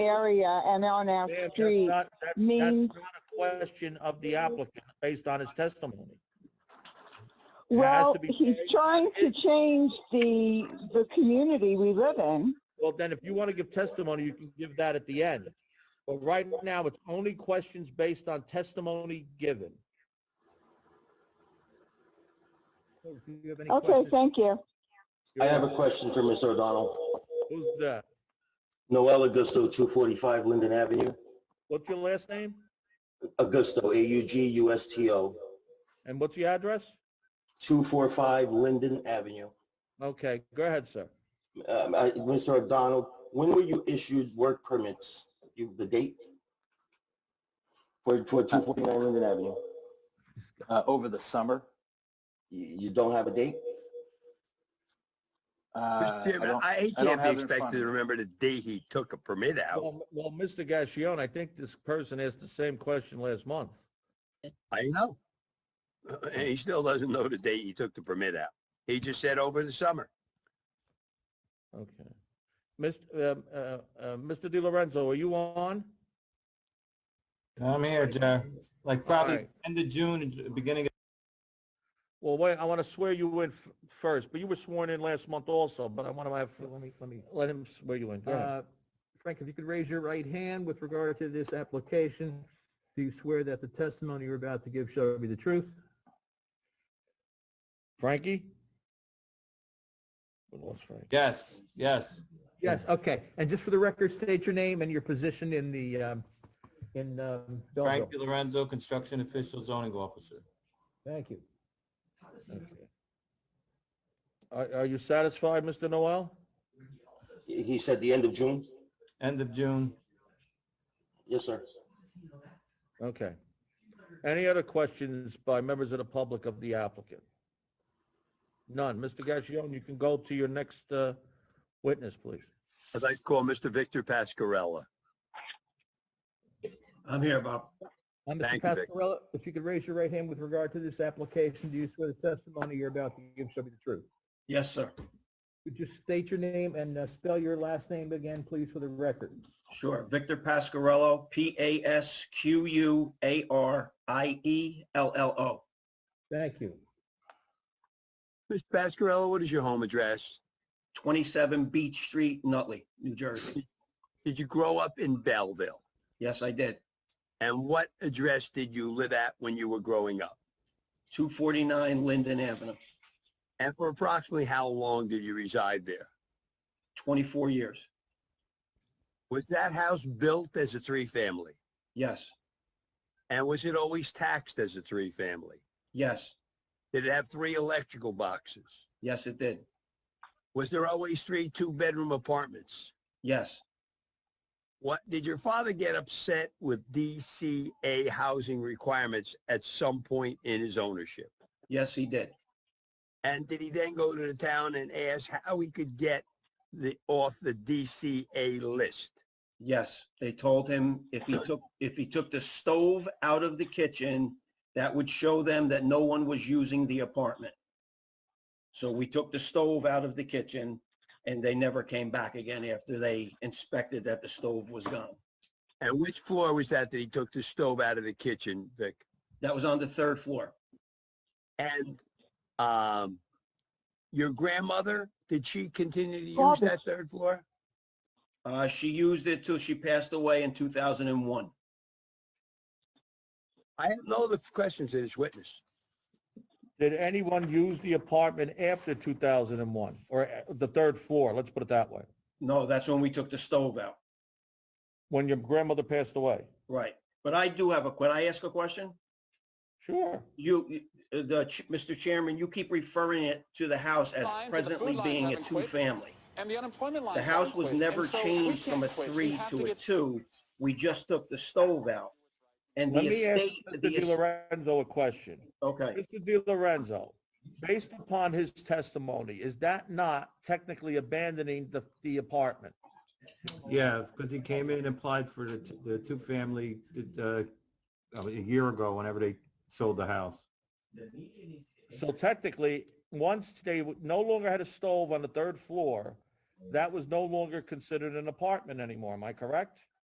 area and on our Ma'am, that's street. not- that's- means- That's not a question of the applicant based on his testimony. has Well, to be he's changed. trying to change the, the community we live in. Well, then if you want to give testimony, you can give that at the end. But right now, it's only questions based on testimony given. So if you have any Okay, questions, thank you. I have a question for Ms. O'Donnell. Who's that? Noel Augusto, 245 Linden Avenue. What's your last name? Augusto, A-U-G-U-S-T-O, And what's your address? 245 Linden Avenue. Okay, go ahead, sir. Um, I- Mr. O'Donnell, when were you issued work permits? You- The date? For for 249 Linden Avenue? uh, over the summer. You you don't have a date? Uh, Uh, Mr. I Chairman, don't- I don't can't have be it in front expected of to me. remember the day he took a permit out. Well, well, Mr. Gassion, I think this person asked the same question last month. I know. And uh, he still doesn't know the date he took the permit out. He just said over the summer. Okay. Mr. um, uh, uh, Mr. Di Lorenzo, are you on? I'm here, Joe. Like probably Alright. end of June, and j- beginning of, Well, wait, I want to swear you in f- first, but you were sworn in last month also, but I want to have, Let me, let me, let him swear you in. Go ahead. uh, Frank, if you could raise your right hand with regard to this application. Do you swear that the testimony you're about to give shall be the truth? Frankie? We lost Frank. yes, yes. Yes, okay. And just for the record, state your name and your position in the, um, in, um, Belleville. Frank Di Lorenzo, construction official, zoning officer. Thank you. Okay. Are, are you satisfied, Mr. Noel? He he said the end of June? End of June. Yes, sir. Okay. Any other questions by members of the public of the applicant? None. Mr. Gassion, you can go to your next uh, witness, please. I'd like to call Mr. Victor Pascarella. I'm here, Bob. Uh, Mr. Thank you, Vic. Pascarella, if you could raise your right hand with regard to this application, do you swear the testimony you're about to give shall be the truth? Yes, sir. Could you state your name and uh, spell your last name again, please, for the record? Sure. Victor Pasquarello, E P-A-S-Q-U-A-R-I-E-L-L-O. Thank you. Mr. Pascarella, what is your home address? 27 Beach Street, Nutley, New Jersey. Did you grow up in Belleville? Yes, I did. And what address did you live at when you were growing up? 249 Linden Avenue, And for approximately how long did you reside there? 24 years. Was that house built as a three-family? Yes, And was it always taxed as a three-family? yes, Did it have three electrical boxes? yes, it did. Was there always three two-bedroom apartments? Yes, What did your father get upset with DCA housing requirements at some point in his ownership? yes, he did. And did he then go to the town and ask how he could get the off the DCA list? Yes, they told him if he took, if he took the stove out of the kitchen, that would show them that no one was using the apartment. So we took the stove out of the kitchen and they never came back again after they inspected that the stove was gone. And which floor was that that he took the stove out of the kitchen, Vic? That was on the third floor. And um, your grandmother, did she continue to use Father. that third floor? Uh, she used it till she passed away in 2001. I have no other questions to this witness. Did anyone use the apartment after 2001, or uh, the third floor, let's put it that way, No, that's when we took the stove out. when your grandmother passed away? Right. But I do have a, could I ask a question? Sure. You, you- the, ch- Mr. Chairman, you keep referring it to the house as Lines and the food presently lines being a haven't quit. two-family. And the unemployment line. The house was never changed from a three to a two. We just took the stove out. And Let the me ask estate, Mr. the, Di es- Lorenzo a question. okay, Mr. Di Lorenzo, based upon his testimony, is that not technically abandoning the, the apartment? Yeah, because he came in and applied for the, t- the two-family, uh, a year ago, whenever they sold the house. So technically, once they w- no longer had a stove on the third floor, that was no longer considered an apartment anymore, am I correct?